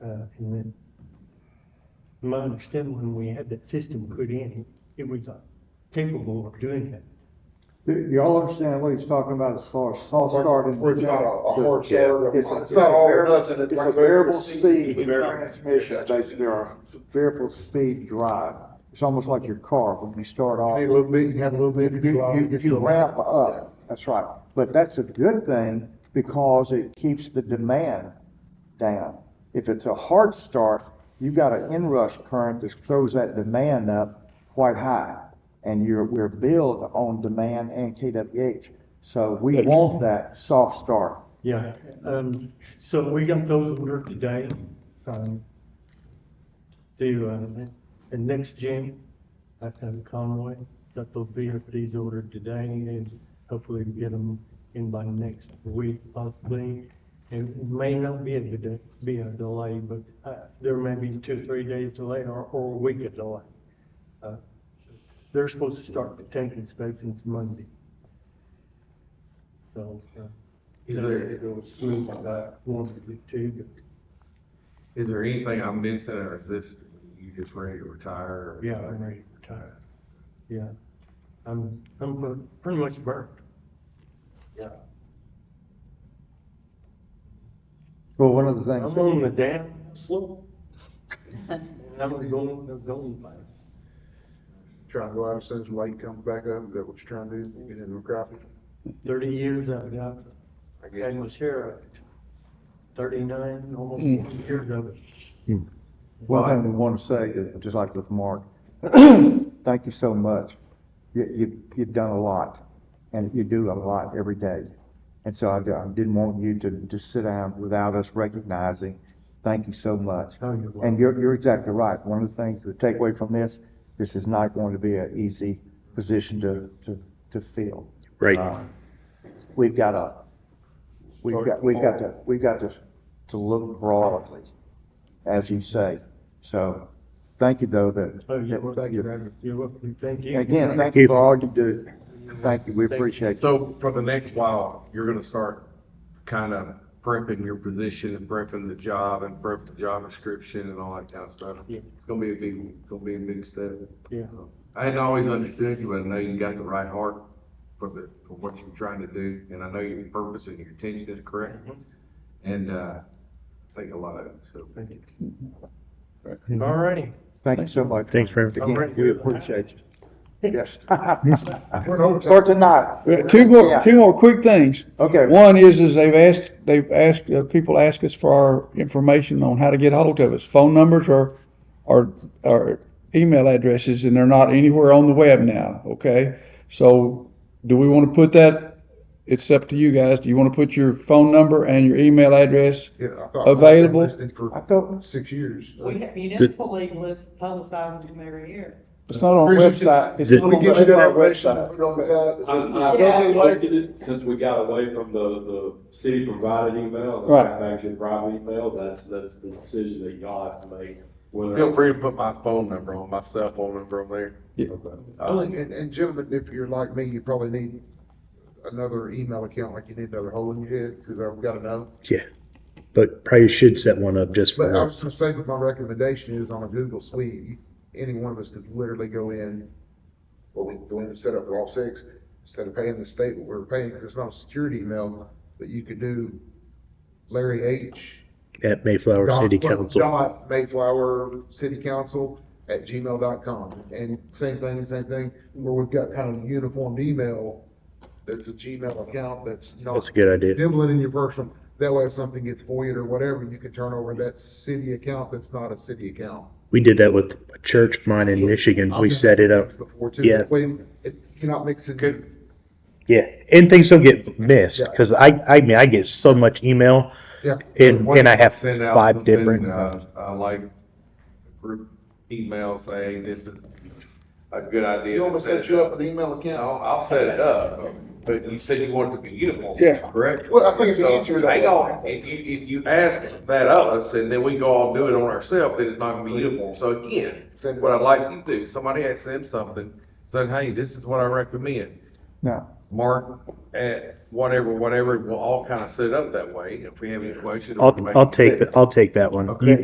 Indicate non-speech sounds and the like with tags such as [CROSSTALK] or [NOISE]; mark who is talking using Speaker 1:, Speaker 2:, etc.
Speaker 1: From uh, my understanding, when we had that system put in, it was uh, capable of doing that.
Speaker 2: Do, do y'all understand what he's talking about as far as false start and?
Speaker 3: Where it's not a- a hard
Speaker 2: Yeah,
Speaker 3: start.
Speaker 2: It's, a-
Speaker 3: It's
Speaker 2: it's a
Speaker 3: not all or
Speaker 2: variable,
Speaker 3: nothing, it's
Speaker 2: it's a
Speaker 3: like
Speaker 2: variable
Speaker 3: variable
Speaker 2: speed
Speaker 3: speed.
Speaker 2: in
Speaker 3: Variable.
Speaker 2: transmission, basically, or variable speed drive. It's almost like your car when you start off.
Speaker 3: Need a little bit, you have a little bit.
Speaker 2: You, you, you ramp up, that's right. But that's a good thing because it keeps the demand down. If it's a hard start, you've got an inrush current that throws that demand up quite high. And you're, we're billed on demand and KWH. So we want that soft start.
Speaker 1: Yeah, um, so we got those ordered today, um, to, uh, the next gym, at um, Conway, that will be, these ordered today, and hopefully we get them in by next week possibly. It may not be a, de- be a delay, but, uh, there may be two, three days delay or, or a week of delay. Uh, They're supposed to start the tank inspections Monday. So, uh,
Speaker 4: Is there,
Speaker 1: smooth as I wanted it to, but
Speaker 4: is there anything I'm missing or is this, you just ready to retire? or-
Speaker 1: yeah, I'm ready to retire. Yeah, I'm, I'm pre- pretty much burnt. Yeah,
Speaker 2: Well, one of the
Speaker 1: I'm
Speaker 2: things,
Speaker 1: on the down slope. [LAUGHS] And I'm going, I'm going by.
Speaker 3: Trying to go out as soon as the light comes back up, is that what you're trying to do, get into the graphic?
Speaker 1: Thirty years I've got,
Speaker 3: I
Speaker 1: I
Speaker 3: guess.
Speaker 1: was here at thirty-nine, almost
Speaker 2: Mm.
Speaker 1: forty years of it.
Speaker 2: one thing we want to say, is, just like with Mark, [CLEARS THROAT] thank you so much. You, you, you've done a lot and you do a lot every day. And so I, I didn't want you to just sit down without us recognizing, thank you so much.
Speaker 1: How you like.
Speaker 2: And you're, you're exactly right. One of the things, the takeaway from this, this is not going to be an easy position to, to, to fill.
Speaker 5: Right.
Speaker 2: Uh, We've got to, we've got, we've got to, we've got to, to look broadly, as you say. So, thank you though that.
Speaker 1: Oh, you're welcome,
Speaker 2: that-
Speaker 1: you're welcome, thank you.
Speaker 2: And again, thank you for all you do. Thank you, we appreciate it.
Speaker 4: So for the next while, you're gonna start kind of prepping your position and prepping the job and prep the job description and all that kind of stuff.
Speaker 1: Yeah.
Speaker 4: It's gonna be a big, it's gonna be a big step.
Speaker 1: Yeah.
Speaker 4: I hadn't always understood you, but I know you got the right heart for the, for what you're trying to do, and I know your purpose and your intention is correct. And, uh, I think a lot of it, so.
Speaker 1: Thank you. All righty.
Speaker 2: Thank you so much.
Speaker 5: Thanks for everything.
Speaker 2: Again, we appreciate you. [LAUGHS] Yes.
Speaker 3: We're-
Speaker 2: Start tonight.
Speaker 6: Uh, Two more,
Speaker 2: Yeah.
Speaker 6: two more quick things.
Speaker 2: Okay.
Speaker 6: One is, is they've asked, they've asked, uh, people ask us for our information on how to get hold of us. Phone numbers or, or, or email addresses, and they're not anywhere on the web now, okay? So do we want to put that, it's up to you guys. Do you want to put your phone number and your email address?
Speaker 3: Yeah, I thought-
Speaker 6: Available?
Speaker 3: Listed
Speaker 2: I
Speaker 3: For
Speaker 2: thought,
Speaker 3: six years.
Speaker 7: We have municipal league lists publicizes them every year.
Speaker 6: It's not on
Speaker 3: Appreciate
Speaker 6: website. It's
Speaker 5: Did-
Speaker 6: not
Speaker 3: We
Speaker 6: on
Speaker 3: get you
Speaker 6: the-
Speaker 3: that information, put it on the side, it's-
Speaker 8: I'm, I'm
Speaker 7: Yeah.
Speaker 8: really liking it since we got away from the, the city provided email, the
Speaker 6: Right.
Speaker 8: manufactured private email, that's, that's the decision that y'all have to make. whether-
Speaker 4: Feel free to put my phone number on, my cell phone number on there.
Speaker 3: Well, And, and gentlemen, if you're like me, you probably need another email account, like you need another hole in your head, because I've got to know.
Speaker 5: But probably should set one up just
Speaker 3: But
Speaker 5: for
Speaker 3: I
Speaker 5: us.
Speaker 3: was gonna say that my recommendation is on a Google Suite, you- any one of us could literally go in, well, we can go in and set up for all six, instead of paying the state what we're paying, because it's not a security email, but you could do Larry H.
Speaker 5: at Mayflower
Speaker 3: dot-
Speaker 5: City
Speaker 3: well,
Speaker 5: Council.
Speaker 3: Dot Mayflower City Council at gmail.com. And same thing, same thing, where we've got kind of uniformed email that's a Gmail account that's
Speaker 5: That's
Speaker 3: not
Speaker 5: a good idea.
Speaker 3: nibbling in your personal. That way if something gets voided or whatever, you can turn over that city account that's not a city account.
Speaker 5: We did that with a church of mine in Michigan. We set it up.
Speaker 3: Before too.
Speaker 5: Yeah.
Speaker 3: That way it- You're not mixing. Good.
Speaker 5: Yeah. And things don't get missed
Speaker 3: Yeah.
Speaker 5: because I, I mean, I get so much email
Speaker 3: Yeah.
Speaker 5: and, and I have
Speaker 4: Send out
Speaker 5: five
Speaker 4: something,
Speaker 5: different.
Speaker 4: Uh, uh, like group email saying this is a good idea.
Speaker 3: You
Speaker 4: to
Speaker 3: want me to
Speaker 4: set
Speaker 3: set
Speaker 4: it
Speaker 3: you
Speaker 4: up.
Speaker 3: up an email account?
Speaker 4: I'll, I'll set it up, but you said you want it to be uniform.
Speaker 6: Yeah.
Speaker 4: Correct?
Speaker 3: Well, I think it's easier that
Speaker 4: Hang
Speaker 3: way.
Speaker 4: on, if you, if you ask that of us, and then we go all do it on ourselves, then it's not gonna be uniform. So again, what I'd like you to do, somebody asks them something, saying, hey, this is what I recommend.
Speaker 2: no,
Speaker 4: Mark, at whatever, whatever, we'll all kind of set up that way. If we have any questions.
Speaker 5: I'll, I'll take, I'll take that one.
Speaker 4: Okay.
Speaker 5: You-